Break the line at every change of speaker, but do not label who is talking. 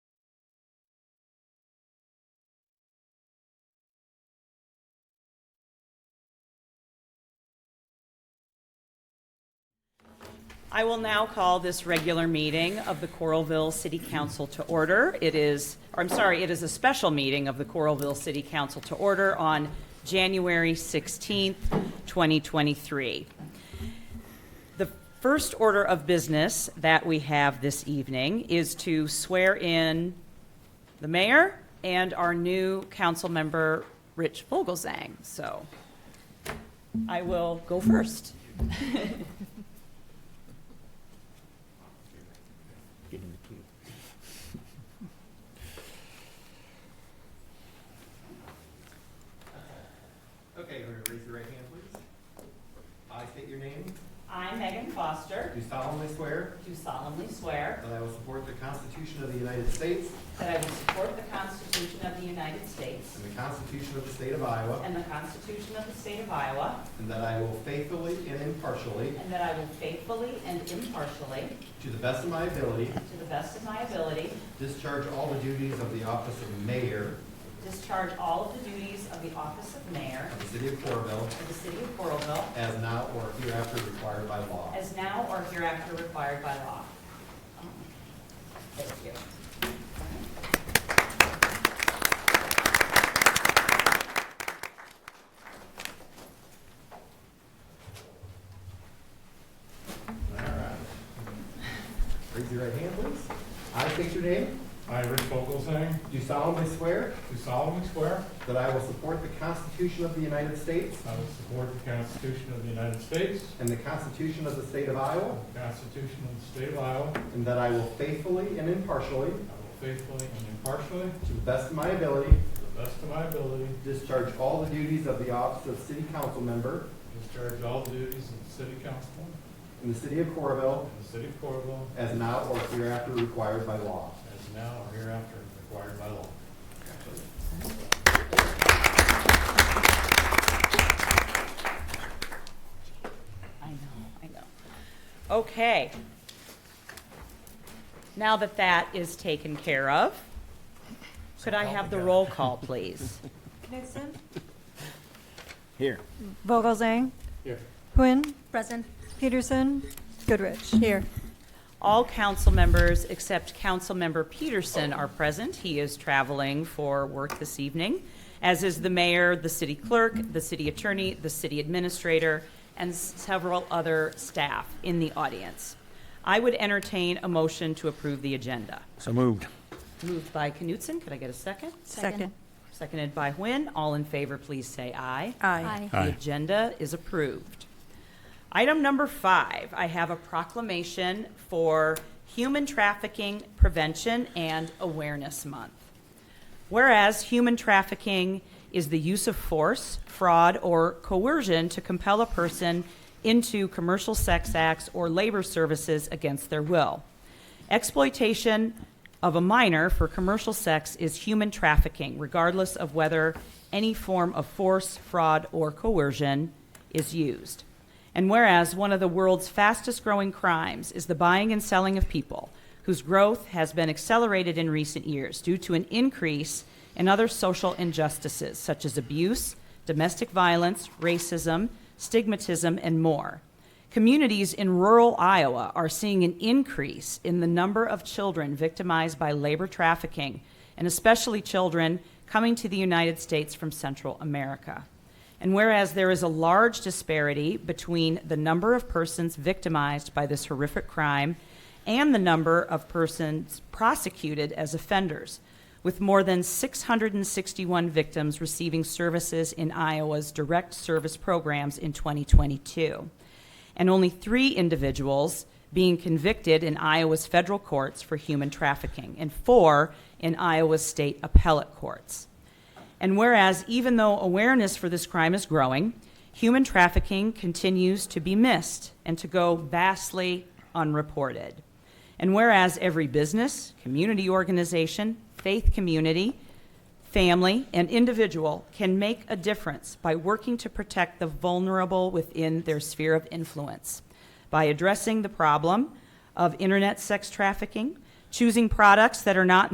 I will now call this regular meeting of the Coralville City Council to order. It is, or I'm sorry, it is a special meeting of the Coralville City Council to order on January 16th, 2023. The first order of business that we have this evening is to swear in the mayor and our new council member, Rich Vogelzang. So I will go first.
Okay, everybody raise your right hand, please. I state your name.
I, Megan Foster,
Do solemnly swear
do solemnly swear
that I will support the Constitution of the United States
that I will support the Constitution of the United States
and the Constitution of the State of Iowa,
and the Constitution of the State of Iowa,
and that I will faithfully and impartially,
and that I will faithfully and impartially,
to the best of my ability,
to the best of my ability,
discharge all the duties of the office of mayor
discharge all of the duties of the office of mayor
of the city of Corrville
of the city of Coralville
as now or hereafter required by law.
as now or hereafter required by law. Thank you.
All right. Raise your right hand, please. I state your name.
I, Rich Vogelzang,
Do solemnly swear
do solemnly swear
that I will support the Constitution of the United States
I will support the Constitution of the United States
and the Constitution of the State of Iowa,
the Constitution of the State of Iowa.
And that I will faithfully and impartially,
I will faithfully and impartially,
to the best of my ability,
to the best of my ability,
discharge all the duties of the office of city council member
discharge all duties of the City Council
in the city of Corrville
in the City of Coralville
as now or hereafter required by law.
as now or hereafter required by law.
I know, I know. Okay. Now that that is taken care of, could I have the roll call, please?
Knutson?
Here.
Vogelzang?
Here.
Quinn? Present. Peterson? Goodrich? Here.
All council members except Councilmember Peterson are present. He is traveling for work this evening, as is the mayor, the city clerk, the city attorney, the city administrator, and several other staff in the audience. I would entertain a motion to approve the agenda.
So moved.
Moved by Knutson, could I get a second?
Second.
Seconded by Nguyen. All in favor, please say aye.
Aye.
The agenda is approved. Item number five, I have a proclamation for Human Trafficking Prevention and Awareness Month. Whereas human trafficking is the use of force, fraud, or coercion to compel a person into commercial sex acts or labor services against their will. Exploitation of a minor for commercial sex is human trafficking, regardless of whether any form of force, fraud, or coercion is used. And whereas one of the world's fastest growing crimes is the buying and selling of people, whose growth has been accelerated in recent years due to an increase in other social injustices such as abuse, domestic violence, racism, stigmatism, and more. Communities in rural Iowa are seeing an increase in the number of children victimized by labor trafficking, and especially children coming to the United States from Central America. And whereas there is a large disparity between the number of persons victimized by this horrific crime and the number of persons prosecuted as offenders, with more than 661 victims receiving services in Iowa's direct service programs in 2022, and only three individuals being convicted in Iowa's federal courts for human trafficking, and four in Iowa's state appellate courts. And whereas, even though awareness for this crime is growing, human trafficking continues to be missed and to go vastly unreported. And whereas every business, community organization, faith community, family, and individual can make a difference by working to protect the vulnerable within their sphere of influence by addressing the problem of internet sex trafficking, choosing products that are not